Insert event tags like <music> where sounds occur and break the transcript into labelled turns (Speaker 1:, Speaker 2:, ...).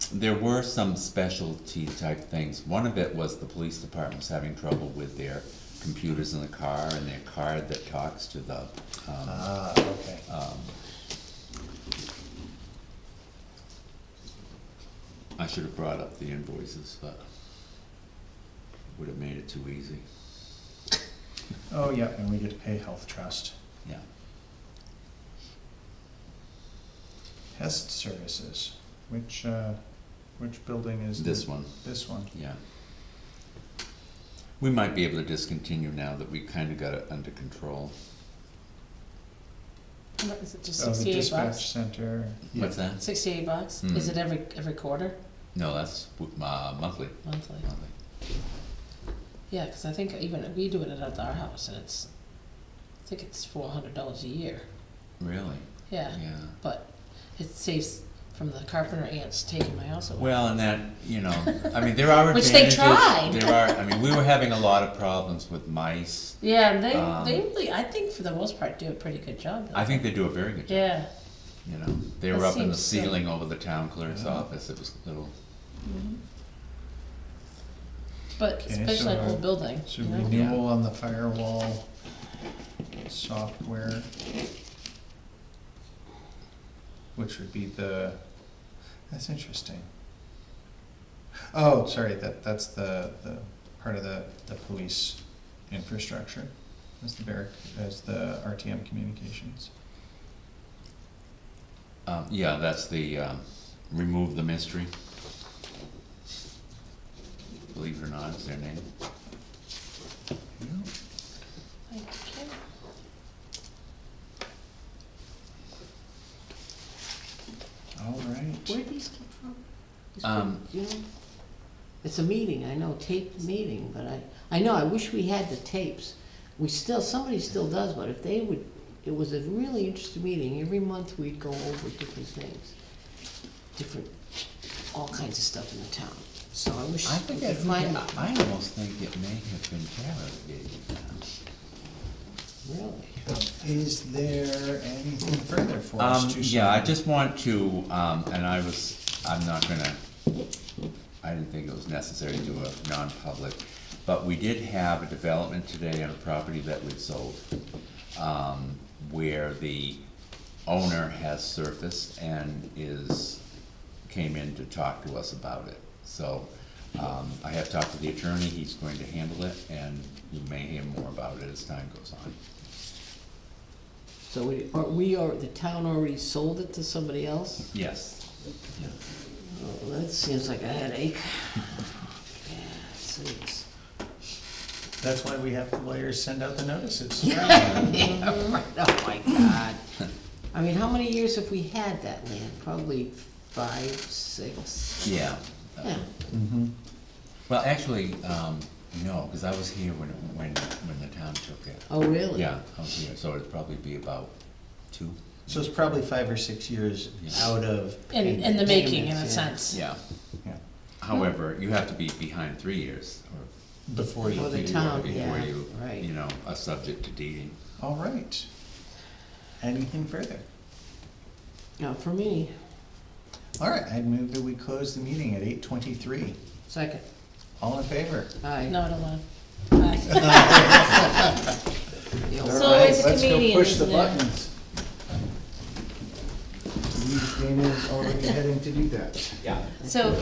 Speaker 1: there were some specialty type things. One of it was the police department was having trouble with their computers in the car and their card that talks to the, um,
Speaker 2: Ah, okay.
Speaker 1: I should have brought up the invoices, but would have made it too easy,
Speaker 2: Oh, yeah, and we get to pay health trust.
Speaker 1: yeah.
Speaker 2: Pest services, which, uh, which building is?
Speaker 1: This
Speaker 2: the-
Speaker 1: one.
Speaker 2: This one.
Speaker 1: Yeah. We might be able to discontinue now that we kinda got it under control.
Speaker 3: How much Is it just
Speaker 2: Oh, the
Speaker 3: sixty-eight
Speaker 2: dispatch
Speaker 3: bucks?
Speaker 2: center. yeah.
Speaker 1: What's that?
Speaker 3: Sixty-eight bucks? Is
Speaker 1: Hmm.
Speaker 3: it every, every quarter,
Speaker 1: No, that's, w- uh, monthly,
Speaker 3: monthly?
Speaker 1: monthly.
Speaker 3: Yeah, 'cause I think even, we do it at our house and it's, I think it's four hundred dollars a year,
Speaker 1: Really?
Speaker 3: yeah.
Speaker 1: Yeah.
Speaker 3: But it saves from the carpenter ants taking my house away.
Speaker 1: Well, and that, you know, I mean, there are
Speaker 3: <laughs> Which
Speaker 1: advantages.
Speaker 3: they tried.
Speaker 1: There are, I mean, we were having a lot of problems with mice.
Speaker 3: Yeah, and they,
Speaker 1: Um,
Speaker 3: they really, I think for the most part, do a pretty good job.
Speaker 1: I think they do a very good job,
Speaker 3: Yeah,
Speaker 1: you know. They
Speaker 3: That
Speaker 1: were up in the
Speaker 3: seems so.
Speaker 1: ceiling over the town clerk's
Speaker 2: Yeah.
Speaker 1: office. It was a little,
Speaker 3: but
Speaker 2: Okay,
Speaker 3: especially an
Speaker 2: so-
Speaker 3: old building,
Speaker 2: So
Speaker 3: you know?
Speaker 2: renewal on the firewall software. Which would be the, that's interesting. Oh, sorry, that, that's the, the part of the, the police infrastructure, is the barrack, is the RTM communications.
Speaker 1: um, yeah, that's the, um, remove the mystery. Believe it or not, is their name.
Speaker 3: Thank you.
Speaker 2: All right.
Speaker 4: Where did these come from? This
Speaker 1: Um,
Speaker 4: group, you know? It's a meeting, I know, taped meeting, but I, I know, I wish we had the tapes. We still, somebody still does, but if they would, it was a really interesting meeting, every month we'd go over different things. Different, all kinds of stuff in the town, so I wish
Speaker 1: I
Speaker 4: we
Speaker 1: think
Speaker 4: could find,
Speaker 1: I, I almost think it may have been Tara that gave you that.
Speaker 4: really.
Speaker 2: Is there anything further for
Speaker 1: Um,
Speaker 2: us to?
Speaker 1: yeah, I
Speaker 2: sign?
Speaker 1: just want to, um, and I was, I'm not gonna, I didn't think it was necessary to do a non-public, but we did have a development today on a property that we'd sold, um, where the owner has surfaced and is, came in to talk to us about it. So, um, I have talked to the attorney, he's going to handle it, and you may hear more about it as time goes on.
Speaker 4: So we, are, we are, the town already sold it to somebody else?
Speaker 1: Yes.
Speaker 4: Oh, that seems like a headache. <laughs> Yeah, it seems.
Speaker 2: That's why we have the lawyers send out the notices.
Speaker 4: Yeah, <laughs> right, oh my god. I mean, how many years have we had that land? Probably five, six?
Speaker 1: Yeah.
Speaker 4: Yeah,
Speaker 1: Mm-hmm. Well, actually, um, no, because I was here when, it- when, when the town took it.
Speaker 4: oh really?
Speaker 1: Yeah, I was here, so it'd probably be about two.
Speaker 2: So it's probably five or six years
Speaker 1: Yeah.
Speaker 2: out of.
Speaker 3: In, in the
Speaker 2: payment.
Speaker 3: making, in a
Speaker 4: Payments, yeah.
Speaker 3: sense.
Speaker 1: Yeah.
Speaker 2: Yeah,
Speaker 1: However, you have to be behind three years or.
Speaker 2: Before
Speaker 4: Well,
Speaker 2: you,
Speaker 4: the
Speaker 1: before you-
Speaker 4: town,
Speaker 1: before
Speaker 4: yeah,
Speaker 1: you,
Speaker 4: right.
Speaker 1: You know, are subject to deeding.
Speaker 2: all right. Anything further?
Speaker 4: Now, for me,
Speaker 2: All right, I'd move that we close the meeting at eight twenty-three.
Speaker 4: second,
Speaker 2: All in favor?
Speaker 4: aye.
Speaker 3: No, I don't want. Hi.
Speaker 4: The old-
Speaker 3: So always a comedian, isn't it?
Speaker 2: Dana's already heading to do that.
Speaker 1: Yeah.
Speaker 3: <laughs> So